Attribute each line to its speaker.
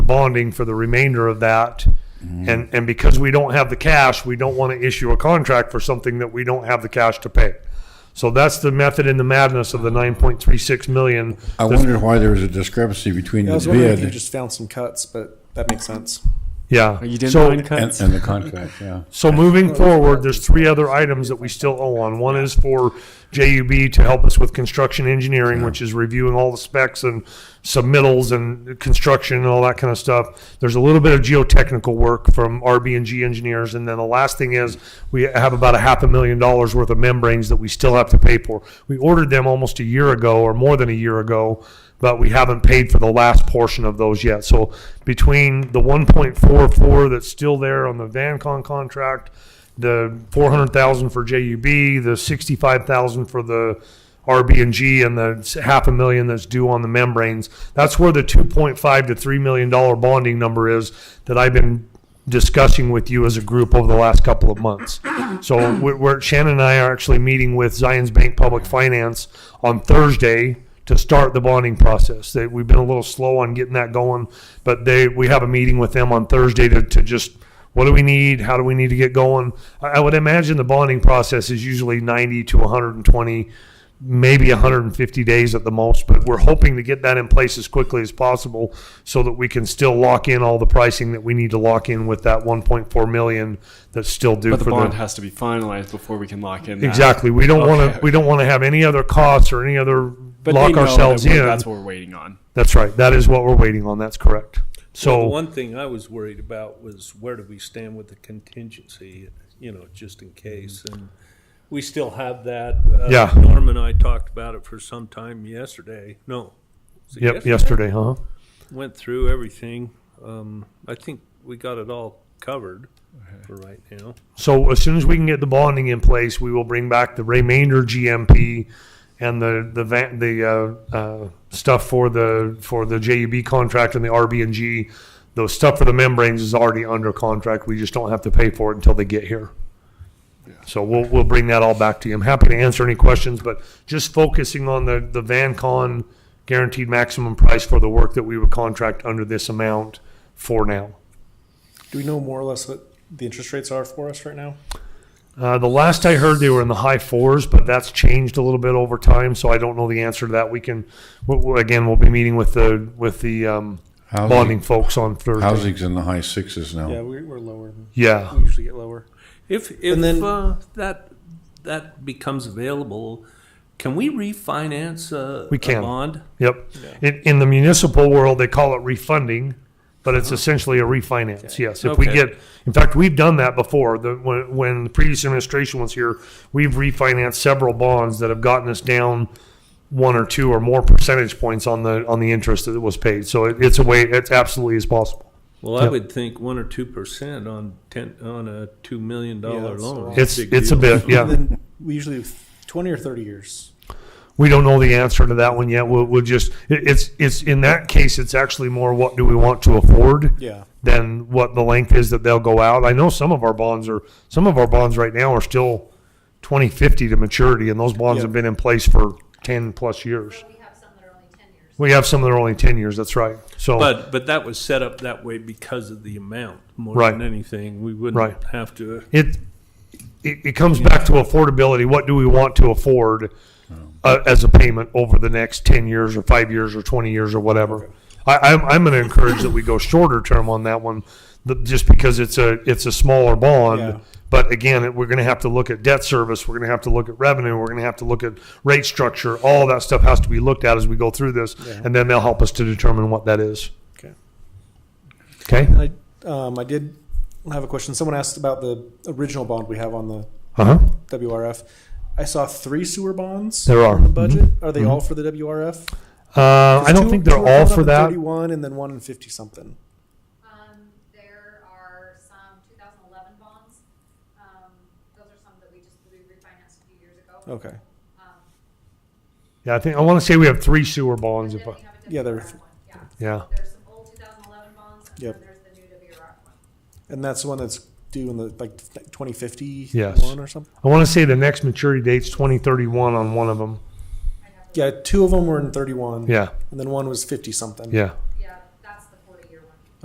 Speaker 1: bonding for the remainder of that.
Speaker 2: Mm-hmm.
Speaker 1: And, and because we don't have the cash, we don't want to issue a contract for something that we don't have the cash to pay. So that's the method in the madness of the nine point three six million.
Speaker 2: Oh.
Speaker 3: I wondered why there was a discrepancy between
Speaker 4: I
Speaker 3: the
Speaker 4: was wondering if you
Speaker 3: bid
Speaker 4: just found some cuts, but that makes sense.
Speaker 1: Yeah.
Speaker 2: You didn't
Speaker 1: So-
Speaker 2: mind
Speaker 3: and,
Speaker 2: cuts?
Speaker 3: and the contract, yeah.
Speaker 1: So moving forward, there's three other items that we still owe on. One is for JUB to help us with construction engineering, which is reviewing all the specs and submittals and construction and all that kind of stuff. There's a little bit of geotechnical work from RB and G engineers. And then the last thing is we have about a half a million dollars worth of membranes that we still have to pay for. We ordered them almost a year ago or more than a year ago but we haven't paid for the last portion of those yet. So between the one point four four that's still there on the VanCon contract, the four hundred thousand for JUB, the sixty-five thousand for the RB and G, and the s- half a million that's due on the membranes, that's where the two point five to three million dollar bonding number is that I've been discussing with you as a group over the last couple of months. So we're, we're Shannon and I are actually meeting with Zions Bank Public Finance on Thursday to start the bonding process. That we've been a little slow on getting that going, but they we have a meeting with them on Thursday to, to just what do we need? How do we need to get going? I, I would imagine the bonding process is usually 90 to 120 maybe 150 days at the most, but we're hoping to get that in place as quickly as possible so that we can still lock in all the pricing that we need to lock in with that 1.4 million that's still due
Speaker 2: But the
Speaker 1: for
Speaker 2: bond
Speaker 1: the
Speaker 2: has to be finalized before we can lock in. that.
Speaker 1: Exactly. We don't want
Speaker 2: Okay.
Speaker 1: to we don't want to have any other costs or any other
Speaker 2: But they
Speaker 1: lock
Speaker 2: know that
Speaker 1: ourselves
Speaker 2: we're-
Speaker 1: in.
Speaker 2: That's what we're waiting on.
Speaker 1: That's right. That is what we're waiting on. That's correct.
Speaker 5: The
Speaker 1: So
Speaker 5: One thing I was worried about was where do we stand with the contingency, you know, just in case, and we still have that. Uh,
Speaker 1: Mm. Yeah.
Speaker 5: Norm and I talked about it for some time yesterday, no. was it
Speaker 1: yep, yesterday, huh?
Speaker 5: Went through everything, um, I think we got it all covered for right now.
Speaker 1: So as soon as we can get the bonding in place, we will bring back the remainder GMP and the the van, the uh, uh, stuff for the for the JUB contract and the RB and G. The stuff for the membranes is already under contract. We just don't have to pay for it until they get here. So we'll we'll bring that all back to you. I'm happy to answer any questions, but just focusing on the the VanCon guaranteed maximum price for the work that we would contract under this amount for now.
Speaker 4: Do we know more or less what the interest rates are for us right now?
Speaker 1: Uh, the last I heard, they were in the high fours, but that's changed a little bit over time. So I don't know the answer to that. We can, we- we- again, we'll be meeting with the with the um, bonding
Speaker 3: Housing,
Speaker 1: folks on Thursday.
Speaker 3: housing's in the high sixes now.
Speaker 4: Yeah, we, we're lower.
Speaker 1: Yeah,
Speaker 4: We usually get lower.
Speaker 5: If, if,
Speaker 4: then-
Speaker 5: uh, that, that becomes available, can we refinance uh, a?
Speaker 1: We
Speaker 5: a
Speaker 1: can.
Speaker 5: Bond?
Speaker 1: yep. In, in the municipal world, they call it refunding, but it's essentially a refinance. Yes, if we
Speaker 5: Uh-huh. Okay.
Speaker 1: get, in fact, we've done that before. The, when when the previous administration was here, we've refinanced several bonds that have gotten us down one or two or more percentage points on the on the interest that was paid. So it, it's a way. It's absolutely is possible.
Speaker 5: Well, I
Speaker 1: Yep.
Speaker 5: would think one or two percent on ten, on a two million
Speaker 4: Yeah,
Speaker 5: dollar
Speaker 4: that's a
Speaker 5: loan.
Speaker 4: lot.
Speaker 1: It's,
Speaker 5: Big
Speaker 1: it's a
Speaker 5: deal.
Speaker 1: bit, yeah.
Speaker 4: Then we usually have 20 or 30 years.
Speaker 1: We don't know the answer to that one yet. We'll, we'll just, it, it's, it's, in that case, it's actually more what do we want to afford
Speaker 4: Yeah.
Speaker 1: than what the length is that they'll go out. I know some of our bonds are, some of our bonds right now are still twenty fifty to maturity and those bonds
Speaker 4: Yeah.
Speaker 1: have been in place for ten plus years.
Speaker 6: But we have some that are only ten years.
Speaker 1: We have some that are only ten years, that's right. So,
Speaker 5: But, but that was set up that way because of the amount more
Speaker 1: Right.
Speaker 5: than anything. We
Speaker 1: Right.
Speaker 5: wouldn't have to.
Speaker 1: it, it, it comes back to affordability. What do we want to afford? uh, as a payment over the next ten years or five years or twenty years or whatever. I, I'm, I'm going to encourage that we go shorter term on that one, th- just because it's a it's a smaller bond.
Speaker 4: Yeah.
Speaker 1: But again, it- we're going to have to look at debt service. We're going to have to look at revenue. We're going to have to look at rate structure. All that stuff has to be looked at as we go through this, and then they'll help us to determine what that is.
Speaker 4: Okay.
Speaker 1: Okay.
Speaker 4: And I, um, I did have a question. Someone asked about the original bond we have on the
Speaker 1: Uh huh.
Speaker 4: WRF. I saw three sewer bonds.
Speaker 1: There are.
Speaker 4: in the budget. Are they all for the WRF?
Speaker 1: Uh, Mm-hmm. I don't
Speaker 4: Two-
Speaker 1: think
Speaker 4: two
Speaker 1: they're
Speaker 4: are coming
Speaker 1: all
Speaker 4: up
Speaker 1: for
Speaker 4: in
Speaker 1: that.
Speaker 4: Thirty-one, and then one in fifty something.
Speaker 6: Um, there are some two thousand eleven bonds. Um, those are some that we just, we refinanced a few years ago.
Speaker 4: Okay.
Speaker 6: Um,
Speaker 1: Yeah, I think I want to say we have three sewer bonds.
Speaker 6: And
Speaker 1: If
Speaker 6: then
Speaker 1: I,
Speaker 6: we have a
Speaker 4: Yeah, there-
Speaker 6: WRF one, yeah.
Speaker 1: yeah.
Speaker 6: There's some old two thousand eleven bonds, and
Speaker 4: Yep.
Speaker 6: then there's the new WRF one.
Speaker 4: And that's the one that's due in the like twenty fifty
Speaker 1: Yes.
Speaker 4: one or something.
Speaker 1: I want to say the next maturity date's 2031 on one of them.
Speaker 6: I'd have to-
Speaker 4: Yeah, two of them were in thirty-one.
Speaker 1: Yeah,
Speaker 4: and then one was fifty something.
Speaker 1: yeah.